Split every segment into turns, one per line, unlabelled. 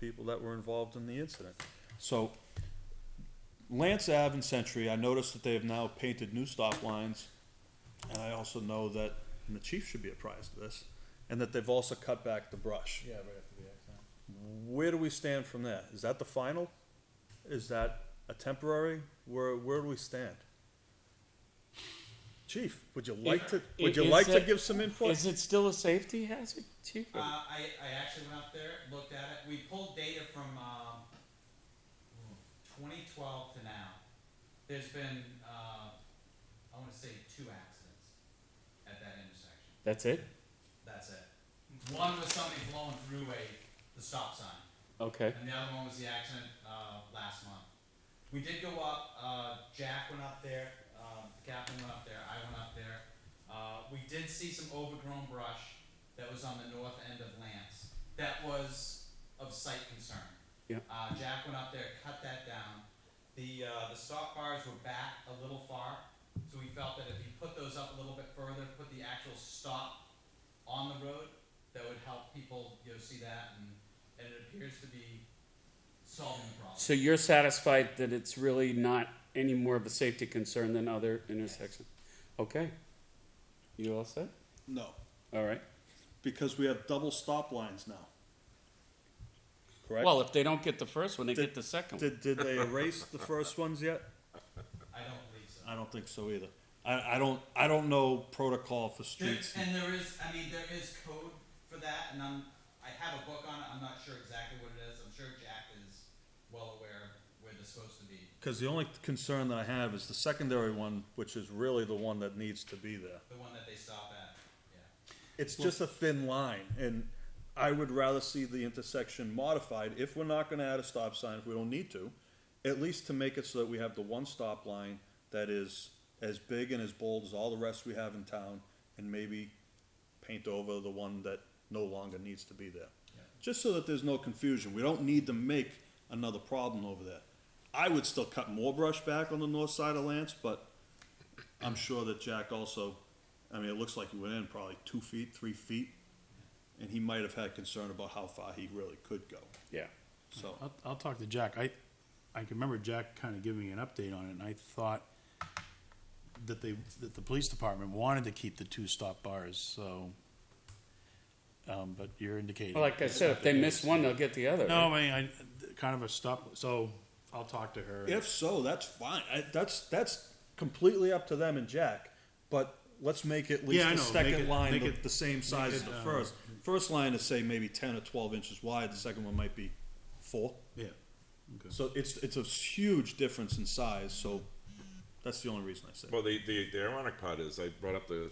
people that were involved in the incident. So Lance Ave and Century, I noticed that they have now painted new stop lines. And I also know that, and the chief should be apprised of this, and that they've also cut back the brush.
Yeah, right after the accident.
Where do we stand from that? Is that the final? Is that a temporary? Where, where do we stand? Chief, would you like to, would you
Is
like to
that-
give some input?
Is it still a safety hazard, chief?
Uh, I, I actually went up there, looked at it, we pulled data from, um, twenty twelve to now. There's been, uh, I wanna say two accidents at that intersection,
That's it?
that's it. One was somebody blowing through a, the stop sign.
Okay.
And the other one was the accident uh, last month. We did go up. Uh, Jack went up there. Um, the captain went up there. I went up there. Uh, we did see some overgrown brush that was on the north end of Lance. That was of site concern.
Yep.
Uh, Jack went up there, cut that down. The uh, the stop bars were back a little far, so we felt that if you put those up a little bit further, put the actual stop on the road, that would help people you know see that, and, and it appears to be solving the problem.
So you're satisfied that it's really not any more of a safety concern than other intersections? Okay. You all set?
No,
All right.
because we have double stop lines now. Correct?
Well, if they don't get the first one, they
Did-
get the second one.
Did, did they erase the first ones yet?
I don't believe so.
I don't think so either. I, I don't, I don't know protocol for
There,
streets.
and there is, I mean, there is code for that, and I'm, I have a book on it. I'm not sure exactly what it is. I'm sure Jack is well aware of where they're supposed to be.
Cause the only concern that I have is the secondary one, which is really the one that needs to be there.
The one that they stop at. Yeah.
It's just a thin line and I would rather see the intersection modified if we're not gonna add a stop sign, if we don't need to. At least to make it so that we have the one stop line that is as big and as bold as all the rest we have in town and maybe paint over the one that no longer needs to be there.
Yeah.
Just so that there's no confusion. We don't need to make another problem over there. I would still cut more brush back on the north side of Lance, but I'm sure that Jack also, I mean, it looks like he went in probably two feet, three feet, and he might have had concern about how far he really could go.
Yeah.
So,
I'll, I'll talk to Jack. I, I can remember Jack kind of giving me an update on it, and I thought that they, that the police department wanted to keep the two stop bars, so, um, but you're indicating.
Well, like I said, if they miss one, they'll get the other.
No,
right?
I mean, I, kind of a stop, so I'll talk to her.
if so, that's fine. I, that's that's completely up to them and Jack. But let's make at least
Yeah,
the
I know.
second
Make it-
line
make
the,
it-
the same size
make
as
it,
the
um,
first. First line is say maybe ten or twelve inches wide. The second one might be four.
Yeah.
So it's it's a huge difference in size. So that's the only reason I said.
Well, the, the, the ironic part is I brought up the,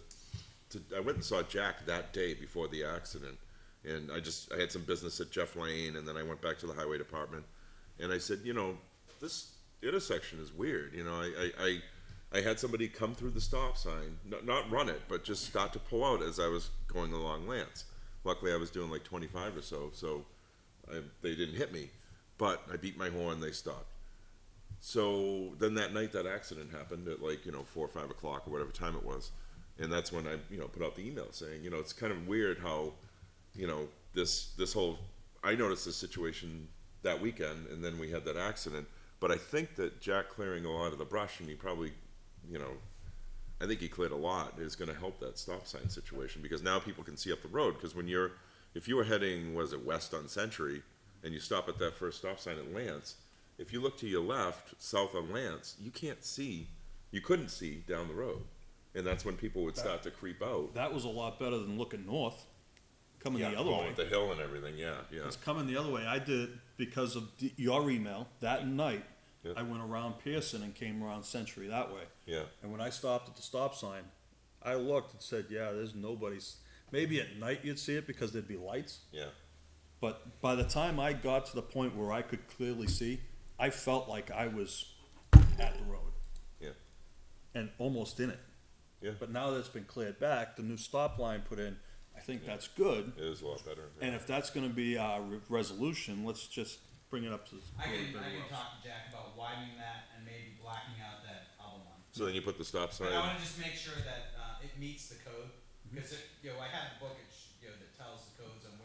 to, I went and saw Jack that day before the accident. And I just, I had some business at Jeff Lane and then I went back to the highway department. And I said, you know, this intersection is weird. You know, I, I, I, I had somebody come through the stop sign, not, not run it, but just start to pull out as I was going along Lance. Luckily, I was doing like 25 or so, so I, they didn't hit me. But I beat my horn, they stopped. So then that night that accident happened at like, you know, four or five o'clock or whatever time it was. And that's when I, you know, put out the email saying, you know, it's kind of weird how, you know, this this whole I noticed this situation that weekend and then we had that accident. But I think that Jack clearing a lot of the brush and he probably you know, I think he cleared a lot is going to help that stop sign situation because now people can see up the road. Because when you're, if you were heading, was it west on Century, and you stop at that first stop sign at Lance, if you look to your left, south on Lance, you can't see, you couldn't see down the road, and that's when people would start to creep out.
That was a lot better than looking north, coming the other
Well,
way.
with the hill and everything. Yeah, yeah.
It's coming the other way. I did it because of the, your email that night.
Yeah.
I went around Pearson and came around Century that way.
Yeah.
And when I stopped at the stop sign, I looked and said, "Yeah, there's nobody's." Maybe at night you'd see it because there'd be lights.
Yeah.
But by the time I got to the point where I could clearly see, I felt like I was at the road.
Yeah.
And almost in it.
Yeah.
But now that it's been cleared back, the new stop line put in, I think that's good.
It is a lot better.
And if that's gonna be our re- resolution, let's just bring it up to.
I can I can talk to Jack about widening that and maybe blacking out that other one.
so then you put the stop sign.
But I want to just make sure that uh, it meets the code because you know I have the book it sh- you know, that tells the codes on